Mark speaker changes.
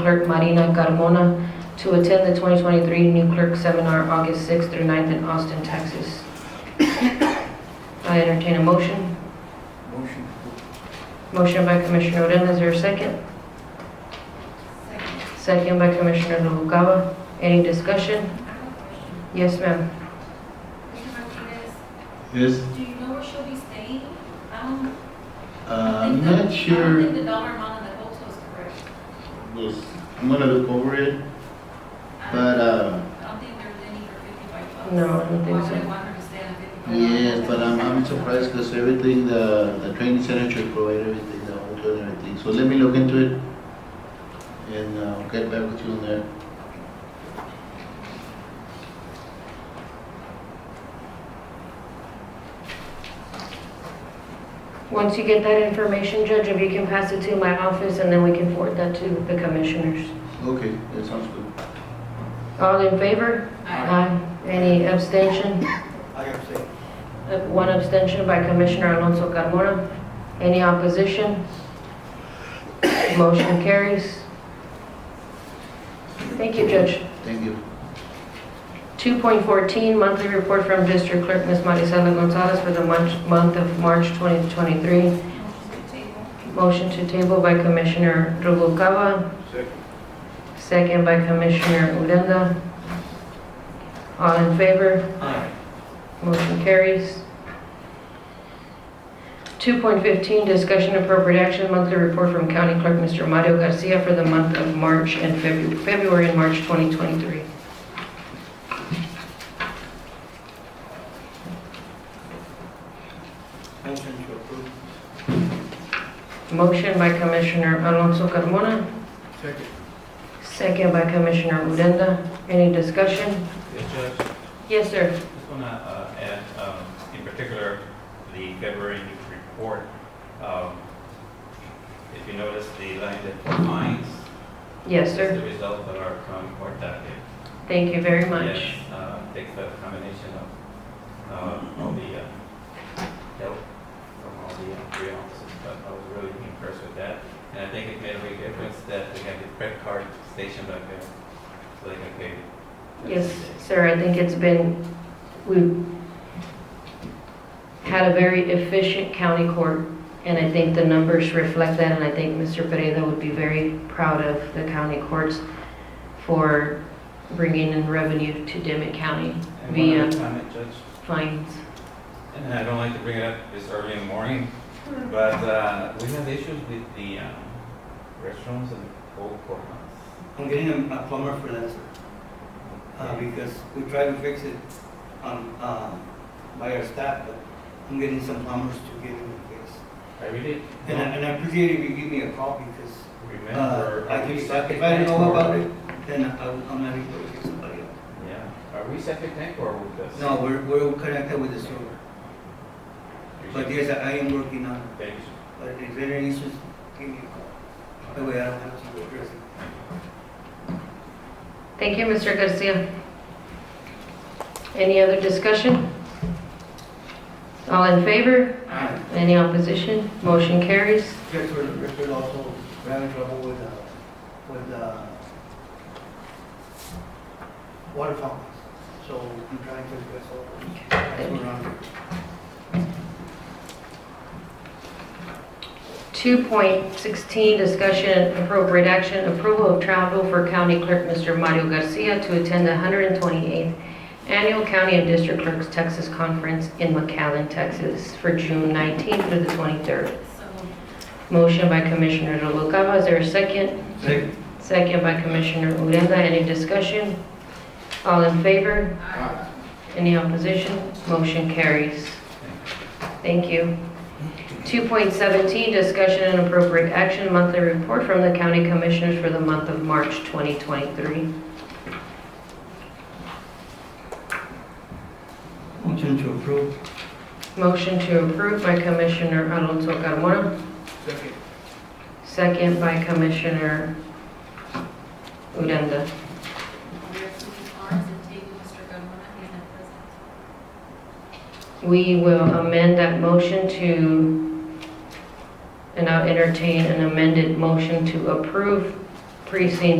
Speaker 1: Clerk Marina Carmona to attend the 2023 New Clerk Seminar, August 6th through 9th in Austin, Texas. I entertain a motion.
Speaker 2: Motion.
Speaker 1: Motion by Commissioner Odena, is there a second? Second by Commissioner Noguera. Any discussion?
Speaker 3: I have a question.
Speaker 1: Yes, ma'am.
Speaker 3: Mr. Martinez,
Speaker 2: Yes,
Speaker 3: do you know where she'll be staying? I don't
Speaker 2: uh, I'm
Speaker 3: think the-
Speaker 2: not
Speaker 3: I don't think
Speaker 2: sure.
Speaker 3: the dollar amount of the hotel is correct.
Speaker 2: Yes, I'm gonna look over it,
Speaker 3: I don't-
Speaker 2: but, uh,
Speaker 3: I don't think there's any for fifty-five bucks.
Speaker 1: No, I don't think
Speaker 3: Why would
Speaker 1: so.
Speaker 3: I want her to stay on fifty-five?
Speaker 2: yes, but I'm, I'm surprised because everything, the, the training center should provide everything, the hotel and everything. So let me look into it and uh, I'll get back with you on that.
Speaker 1: Once you get that information, Judge, if you can pass it to my office, and then we can forward that to the commissioners.
Speaker 2: Okay, that sounds good.
Speaker 1: All in favor?
Speaker 3: I-
Speaker 1: Aye. Any abstention?
Speaker 2: I abstain.
Speaker 1: Uh, One abstention by Commissioner Alonso Carmona. Any opposition? Motion carries. Thank you, Judge.
Speaker 2: Thank you.
Speaker 1: 2.14, monthly report from District Clerk Ms. Marisela Gonzalez for the month month of March 2023.
Speaker 3: Motion to table.
Speaker 1: Motion to table by Commissioner Rubalcava. Second. Second by Commissioner Odena. All in favor? Aye. Motion carries. 2.15, discussion appropriate action, monthly report from County Clerk Mr. Mario Garcia for the month of March and February, February and March 2023.
Speaker 4: Motion to approve.
Speaker 1: Motion by Commissioner Alonso Carmona,
Speaker 4: Second.
Speaker 1: second by Commissioner Odena. Any discussion?
Speaker 4: Yes, Judge,
Speaker 1: Yes, sir.
Speaker 4: just want to add, um, in particular, the February news report. Um, If you notice, the line that defines
Speaker 1: Yes,
Speaker 4: is
Speaker 1: sir.
Speaker 4: the result of our county court docket.
Speaker 1: Thank you very much.
Speaker 4: Yes, uh, Takes the combination of uh, all the uh, help from all the uh, three officers, but I was really impressed with that. And I think it made a big difference that we had the credit card stationed up there, so they can pay.
Speaker 1: Yes, sir, I think it's been, we've had a very efficient county court, and I think the numbers reflect that, and I think Mr. Pereira would be very proud of the county courts for bringing in revenue to Dimmitt County
Speaker 4: And one
Speaker 1: via
Speaker 4: other comment, Judge,
Speaker 1: fines.
Speaker 4: and I don't like to bring it up this early in the morning, but uh, we have issues with the um, restrooms and old courthouse.
Speaker 5: I'm getting a a plumber for that, sir. Uh, because we tried to fix it on, uh, by our staff, but I'm getting some plumbers to get it fixed.
Speaker 4: I really
Speaker 5: And I, and I appreciate if you give me a call because,
Speaker 4: don't
Speaker 5: uh,
Speaker 4: remember.
Speaker 5: I
Speaker 4: Are
Speaker 5: can,
Speaker 4: we
Speaker 5: if I
Speaker 4: septic
Speaker 5: didn't
Speaker 4: tank
Speaker 5: know
Speaker 4: or-
Speaker 5: about it, then I, I'm not able to fix somebody else.
Speaker 4: Yeah, are we septic tank or with this?
Speaker 5: No, we're, we're connected with the server, but yes, I I am working on it,
Speaker 4: Thank you, sir.
Speaker 5: but if there are any issues, give me a call. That way I don't have to address it.
Speaker 1: Thank you, Mr. Garcia. Any other discussion? All in favor?
Speaker 5: Aye.
Speaker 1: Any opposition? Motion carries.
Speaker 5: Yes, we're, we're also we're having trouble with, uh, with, uh, water fountains, so I'm trying to address all of them. That's what we're on.
Speaker 1: 2.16, discussion appropriate action, approval of travel for County Clerk Mr. Mario Garcia to attend the 128th Annual County and District Clerks Texas Conference in McAllen, Texas, for June 19th through the 23rd.
Speaker 3: So,
Speaker 1: Motion by Commissioner Noguera, is there a second?
Speaker 5: Second.
Speaker 1: Second by Commissioner Odena. Any discussion? All in favor?
Speaker 3: I-
Speaker 1: Any opposition? Motion carries. Thank you. 2.17, discussion and appropriate action, monthly report from the county commissioners for the month of March 2023.
Speaker 5: Motion to approve.
Speaker 1: Motion to approve by Commissioner Alonso Carmona,
Speaker 5: Second.
Speaker 1: second by Commissioner Odena.
Speaker 3: we are moving arms and table Mr. Carmona, he's not present.
Speaker 1: We will amend that motion to, and I'll entertain an amended motion to approve precincts